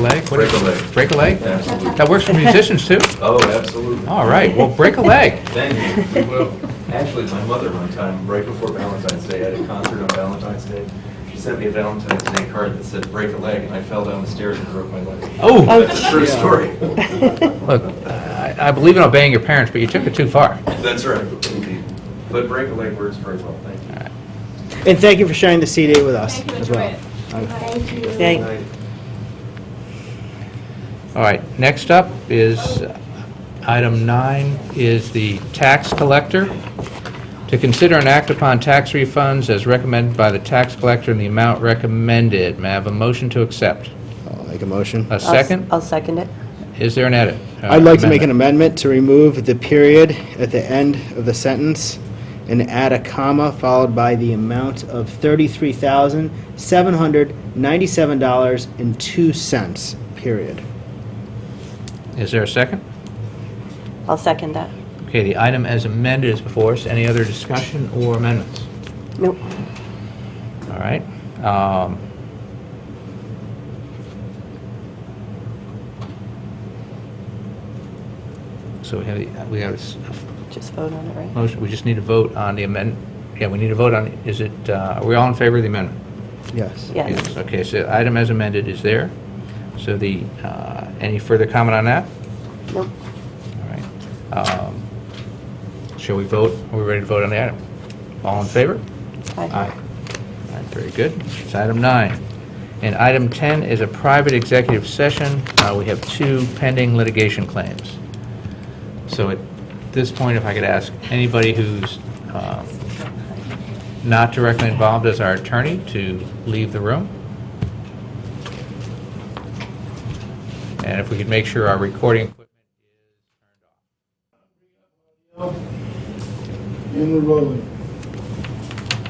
leg? What is it? Break a leg. Break a leg? Absolutely. That works for musicians too? Oh, absolutely. All right, well, break a leg. Thank you. We will. Actually, my mother one time, right before Valentine's Day, at a concert on Valentine's Day, she sent me a Valentine's Day card that said, "Break a leg," and I fell down the stairs and broke my leg. Oh. That's a true story. Look, I I believe in obeying your parents, but you took it too far. That's right. But break a leg works very well, thank you. And thank you for sharing the CD with us Thank you, as enjoy well. it. Uh, Thank you. Thank- All right, next up is, uh, item nine is the tax collector. To consider and act upon tax refunds as recommended by the tax collector in the amount recommended. May I have a motion to accept? I'll make a motion. A I'll s- second? I'll second it. Is there an edit? Uh, I'd like to make an amendment? amendment to remove the period at the end of the sentence and add a comma followed by the amount of $33,797.02, period. Is there a second? I'll second that. Okay, the item as amended is before us. Any other discussion or amendments? Nope. All right. um, So we have, the- we have this Just vote on it, right? motion, we just need to vote on the amend, yeah, we need to vote on, is it, uh, are we all in favor of the amendment? Yes. Yes. Okay, so item as amended is there. So the, uh, any further comment on that? Nope. All right. Um, Shall we vote? Are we ready to vote on the item? All in favor? Aye. All right, very good. It's item nine. And item 10 is a private executive session. Uh, We have two pending litigation claims. So at this point, if I could ask anybody who's um, not directly involved as our attorney to leave the room. And if we could make sure our recording equipment And we're rolling.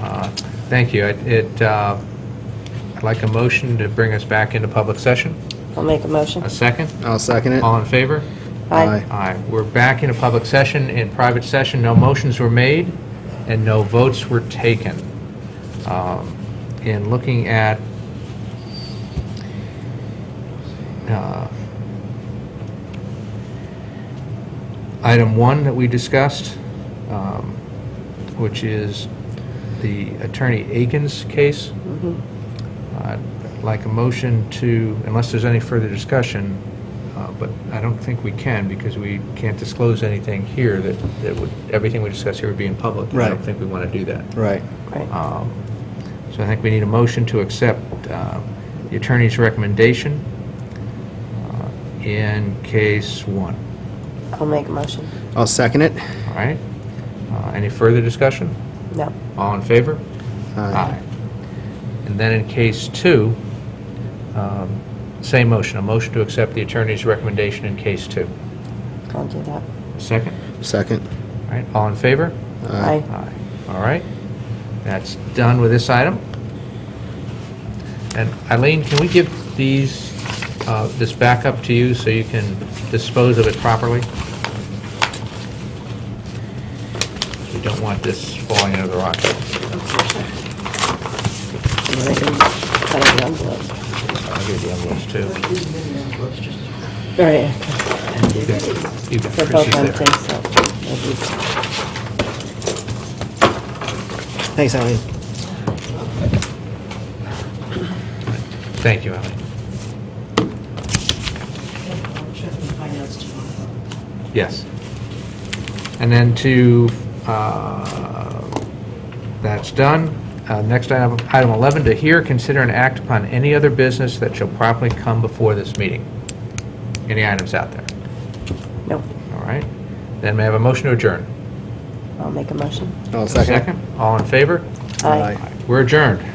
Uh, Thank you. It- It, uh, I'd like a motion to bring us back into public session. I'll make a motion. A second? I'll second it. All in favor? Aye. Aye. We're back in a public session. In private session, no motions were made and no votes were taken. Um, In looking at uh, item one that we discussed, um, which is the Attorney Aiken's case, Mm-hmm. Uh, I'd like a motion to, unless there's any further discussion, uh, but I don't think we can because we can't disclose anything here that, that would, everything we discuss here would be in public. I Right. don't think we want to do that. Right. Right. Um, So I think we need a motion to accept uh, the attorney's recommendation uh, in case one. I'll make a motion. I'll second it. All right? Uh, Any further discussion? No. All in favor? Aye. And then in case two, um, same motion, a motion to accept the attorney's recommendation in case two. I'll do that. Second? Second. All right, all in favor? Aye. Aye. All right, that's done with this item. And Eileen, can we give these, uh, this back up to you so you can dispose of it properly? We don't want this falling into the rock. And then I can cut out the envelopes. I'll give you envelopes too. All right. You got- You got They're both Chris's empty, there. so. Thanks, Eileen. Thank you, Eileen. Yes. And then to, uh, that's done. Uh, Next item, item 11, to hear, consider, and act upon any other business that shall properly come before this meeting. Any items out there? Nope. All right. Then may I have a motion to adjourn? I'll make a motion. I'll second it. All in favor? Aye. We're adjourned.